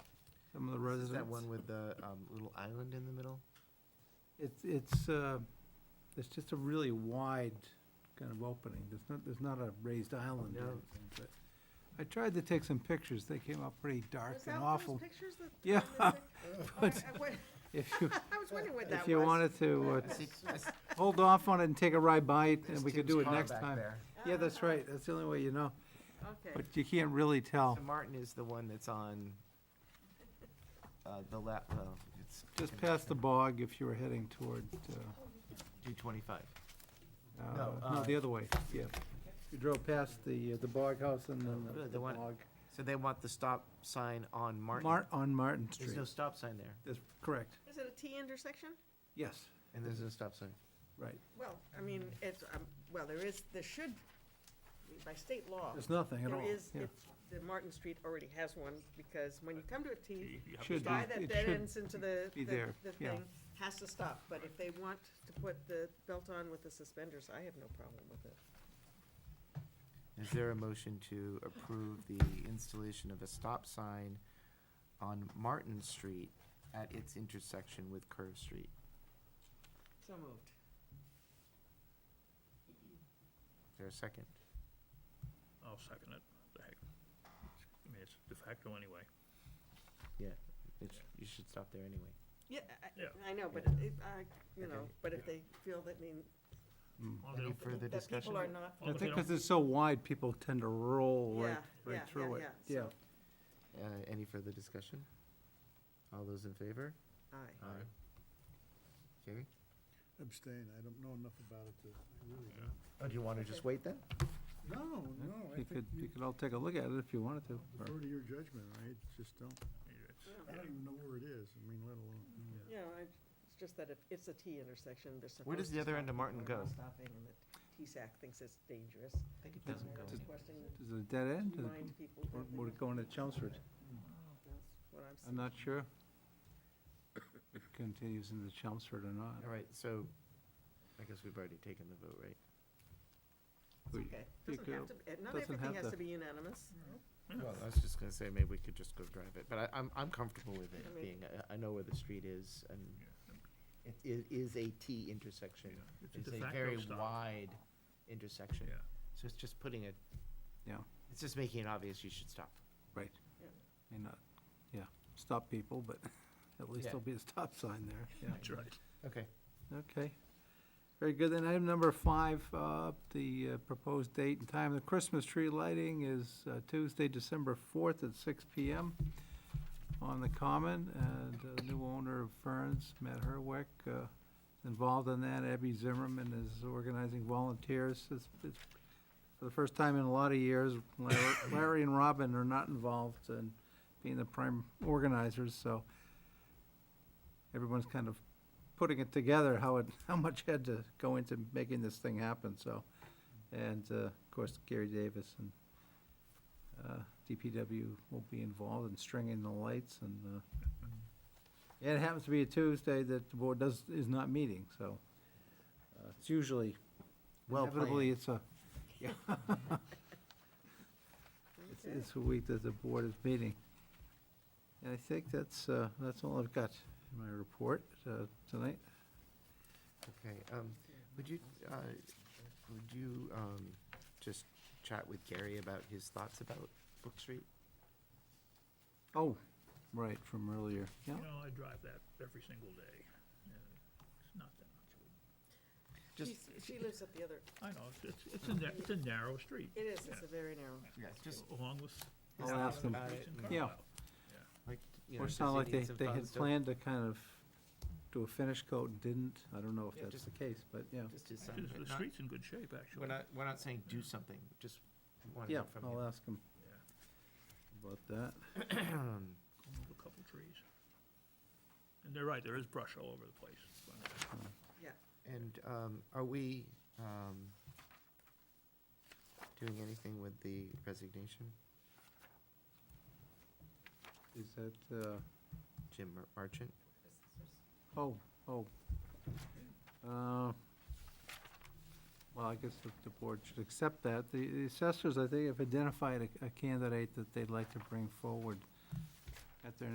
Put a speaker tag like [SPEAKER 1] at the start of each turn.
[SPEAKER 1] some of the
[SPEAKER 2] Is
[SPEAKER 1] residents.
[SPEAKER 2] that one with the um, little island in the middle?
[SPEAKER 1] It's, it's, uh, it's just a really wide kind of opening. There's not, there's not a raised island or
[SPEAKER 2] No.
[SPEAKER 1] anything, but I tried to take some pictures. They came out pretty dark
[SPEAKER 3] Was that
[SPEAKER 1] and
[SPEAKER 3] one of those
[SPEAKER 1] awful.
[SPEAKER 3] pictures that-
[SPEAKER 1] Yeah.
[SPEAKER 3] that was
[SPEAKER 1] But
[SPEAKER 3] like- I- I wa-
[SPEAKER 1] if you,
[SPEAKER 3] I was wondering what that was.
[SPEAKER 1] if you wanted to, uh, hold off on it and take a ride by it, and we could do it next time. Yeah, that's
[SPEAKER 3] Ah,
[SPEAKER 1] right. That's the only way you know.
[SPEAKER 3] Okay,
[SPEAKER 1] But you can't really tell.
[SPEAKER 2] So Martin is the one that's on uh, the left, well, it's.
[SPEAKER 1] Just past the bog if you were heading toward, uh,
[SPEAKER 2] Two twenty-five.
[SPEAKER 1] uh,
[SPEAKER 2] No,
[SPEAKER 1] no,
[SPEAKER 2] uh,
[SPEAKER 1] the other way, yeah. You drove past the, uh, the bog house and then
[SPEAKER 2] Uh,
[SPEAKER 1] the-
[SPEAKER 2] the
[SPEAKER 1] the
[SPEAKER 2] one-
[SPEAKER 1] bog.
[SPEAKER 2] So they want the stop sign on Martin.
[SPEAKER 1] Mart, on Martin
[SPEAKER 2] There's
[SPEAKER 1] Street.
[SPEAKER 2] no stop sign there,
[SPEAKER 1] That's correct.
[SPEAKER 3] is it a T intersection?
[SPEAKER 1] Yes,
[SPEAKER 2] and there's no stop sign.
[SPEAKER 1] right.
[SPEAKER 3] Well, I mean, it's, um, well, there is, there should, be by state law,
[SPEAKER 1] There's nothing at all.
[SPEAKER 3] there is,
[SPEAKER 1] yeah.
[SPEAKER 3] it's- the Martin Street already has one, because when you come to a T, the
[SPEAKER 1] Should be,
[SPEAKER 3] guy that
[SPEAKER 1] it
[SPEAKER 3] dead
[SPEAKER 1] should.
[SPEAKER 3] ends into the,
[SPEAKER 1] be
[SPEAKER 3] the
[SPEAKER 1] there,
[SPEAKER 3] the
[SPEAKER 1] yeah.
[SPEAKER 3] thing has to stop. But if they want to put the belt on with the suspenders, I have no problem with it.
[SPEAKER 2] Is there a motion to approve the installation of a stop sign on Martin Street at its intersection with Curve Street?
[SPEAKER 3] So moved.
[SPEAKER 2] Is there a second?
[SPEAKER 4] I'll second it. The heck. I mean, it's de facto anyway.
[SPEAKER 2] It's- You should stop there anyway.
[SPEAKER 3] Yeah,
[SPEAKER 4] Yeah.
[SPEAKER 3] I, I know, but it, I, you know,
[SPEAKER 2] Okay.
[SPEAKER 3] but if they feel that mean,
[SPEAKER 1] Mm.
[SPEAKER 4] Well,
[SPEAKER 2] Any
[SPEAKER 4] they'll-
[SPEAKER 2] further
[SPEAKER 3] that people
[SPEAKER 2] discussion?
[SPEAKER 3] are not.
[SPEAKER 1] I
[SPEAKER 4] Well,
[SPEAKER 1] think
[SPEAKER 4] they
[SPEAKER 1] because it's so wide, people tend to roll
[SPEAKER 3] Yeah,
[SPEAKER 1] right,
[SPEAKER 3] yeah,
[SPEAKER 1] right through it.
[SPEAKER 3] yeah,
[SPEAKER 1] Yeah,
[SPEAKER 3] so-
[SPEAKER 2] Uh, any further discussion? All those in favor?
[SPEAKER 3] Aye.
[SPEAKER 2] Aye. Jerry?
[SPEAKER 5] Abstain, I don't know enough about it to, I really
[SPEAKER 4] Yeah.
[SPEAKER 5] don't.
[SPEAKER 2] Oh, do you wanna just wait then?
[SPEAKER 5] No, no, I
[SPEAKER 1] you
[SPEAKER 5] think
[SPEAKER 1] could, you
[SPEAKER 5] you
[SPEAKER 1] could all take a look at it if you wanted to. or-
[SPEAKER 5] defer to your judgment, I just don't,
[SPEAKER 4] it's-
[SPEAKER 5] I don't even know where it is, I mean, let alone.
[SPEAKER 3] Yeah, I, it's just that if it's a T intersection, they're supposed to.
[SPEAKER 2] Where does the other
[SPEAKER 3] stop
[SPEAKER 2] end of Martin
[SPEAKER 3] people are not
[SPEAKER 2] go?
[SPEAKER 3] Stopping and the TSAC thinks it's dangerous.
[SPEAKER 2] I think it
[SPEAKER 3] And
[SPEAKER 2] doesn't
[SPEAKER 3] they're
[SPEAKER 2] go.
[SPEAKER 1] Does-
[SPEAKER 3] requesting
[SPEAKER 1] Is it a dead end?
[SPEAKER 3] to remind people.
[SPEAKER 1] Or
[SPEAKER 3] that they
[SPEAKER 1] would it
[SPEAKER 3] must-
[SPEAKER 1] go into Chelmsford?
[SPEAKER 3] That's what I'm
[SPEAKER 1] I'm
[SPEAKER 3] saying.
[SPEAKER 1] not sure. It Continues into Chelmsford or not.
[SPEAKER 2] All right, so I guess we've already taken the vote, right?
[SPEAKER 3] It's
[SPEAKER 1] We-
[SPEAKER 3] okay. Doesn't
[SPEAKER 1] could-
[SPEAKER 3] have to, be- not
[SPEAKER 1] doesn't
[SPEAKER 3] everything
[SPEAKER 1] have
[SPEAKER 3] has
[SPEAKER 1] to- Mm-hmm.
[SPEAKER 3] to be unanimous.
[SPEAKER 2] Well, I was just gonna say, maybe we could just go drive it, but I, I'm, I'm comfortable with
[SPEAKER 3] I
[SPEAKER 2] it
[SPEAKER 3] mean-
[SPEAKER 2] being, I, I know where the street is and
[SPEAKER 4] yeah,
[SPEAKER 2] it, it is a T intersection.
[SPEAKER 4] yeah. It's
[SPEAKER 2] It's
[SPEAKER 4] de
[SPEAKER 2] a
[SPEAKER 4] facto
[SPEAKER 2] very
[SPEAKER 4] stop.
[SPEAKER 2] wide intersection.
[SPEAKER 4] Yeah.
[SPEAKER 2] So it's just putting it.
[SPEAKER 1] Yeah.
[SPEAKER 2] It's just making it obvious you should stop.
[SPEAKER 1] Right.
[SPEAKER 3] Yeah.
[SPEAKER 1] May not, yeah, stop people, but at least
[SPEAKER 2] Yeah.
[SPEAKER 1] there'll be a stop sign there, yeah.
[SPEAKER 4] That's right.
[SPEAKER 2] Okay.
[SPEAKER 1] Okay. Very good. Then item number five, uh, the uh, proposed date and time of the Christmas tree lighting is uh, Tuesday, December 4th at six PM on the Common. And uh, the new owner of Ferns, Matt Herwick, uh, is involved in that. Abby Zimmerman is organizing volunteers. It's- it's For the first time in a lot of years, Larry- Larry and Robin are not involved in being the prime organizers, so everyone's kind of putting it together, how it, how much had to go into making this thing happen, so. And, uh, of course, Gary Davis and, uh, DPW will be involved in stringing the lights and, uh, and it happens to be a Tuesday that the board does, is not meeting, so, uh, it's usually,
[SPEAKER 2] Well
[SPEAKER 1] inevitably,
[SPEAKER 2] planned.
[SPEAKER 1] it's a, yeah. It's,
[SPEAKER 3] Okay.
[SPEAKER 1] it's a week that the board is meeting. And I think that's, uh, that's all I've got in my report, uh, tonight.
[SPEAKER 2] Okay, um, would you, uh, would you, um, just chat with Gary about his thoughts about Brook Street?
[SPEAKER 1] Oh, right, from earlier, yeah.
[SPEAKER 4] You know, I drive that every single day. and It's not that much. of a-
[SPEAKER 2] Just,
[SPEAKER 3] She's- She lives at the other,
[SPEAKER 4] I know, it's- it's, it's a, na- it's a narrow street.
[SPEAKER 3] it is, it's
[SPEAKER 4] Yeah.
[SPEAKER 3] a very narrow.
[SPEAKER 2] yeah, just,
[SPEAKER 4] Along with.
[SPEAKER 1] I'll
[SPEAKER 4] with
[SPEAKER 1] ask
[SPEAKER 4] other
[SPEAKER 1] them.
[SPEAKER 4] streets in
[SPEAKER 1] Yeah.
[SPEAKER 4] Carlisle.
[SPEAKER 2] uh, like, you know,
[SPEAKER 1] Or
[SPEAKER 2] does
[SPEAKER 1] it's
[SPEAKER 2] he
[SPEAKER 1] not like
[SPEAKER 2] need
[SPEAKER 1] they,
[SPEAKER 2] some
[SPEAKER 1] they had
[SPEAKER 2] funds to-
[SPEAKER 1] planned to kind of do a finish coat and didn't. I don't know
[SPEAKER 2] Yeah,
[SPEAKER 1] if that's
[SPEAKER 2] just-
[SPEAKER 1] the case, but yeah.
[SPEAKER 2] Just his son,
[SPEAKER 4] Actually, The
[SPEAKER 2] but
[SPEAKER 4] the
[SPEAKER 2] not-
[SPEAKER 4] street's in good shape, actually.
[SPEAKER 2] We're not, we're not saying do something, just want to
[SPEAKER 1] Yeah,
[SPEAKER 2] hear from
[SPEAKER 1] I'll
[SPEAKER 2] him.
[SPEAKER 1] ask him
[SPEAKER 4] Yeah,
[SPEAKER 1] about that.
[SPEAKER 4] going over a couple trees. And they're right, there is brush all over the place. but- uh,
[SPEAKER 2] And, um, are we, um, doing anything with the resignation?
[SPEAKER 1] Is that, uh,
[SPEAKER 2] Jim Mer- Marchant?
[SPEAKER 1] oh, oh. Uh, Well, I guess the- the board should accept that. The the assessors, I think, have identified a- a candidate that they'd like to bring forward at their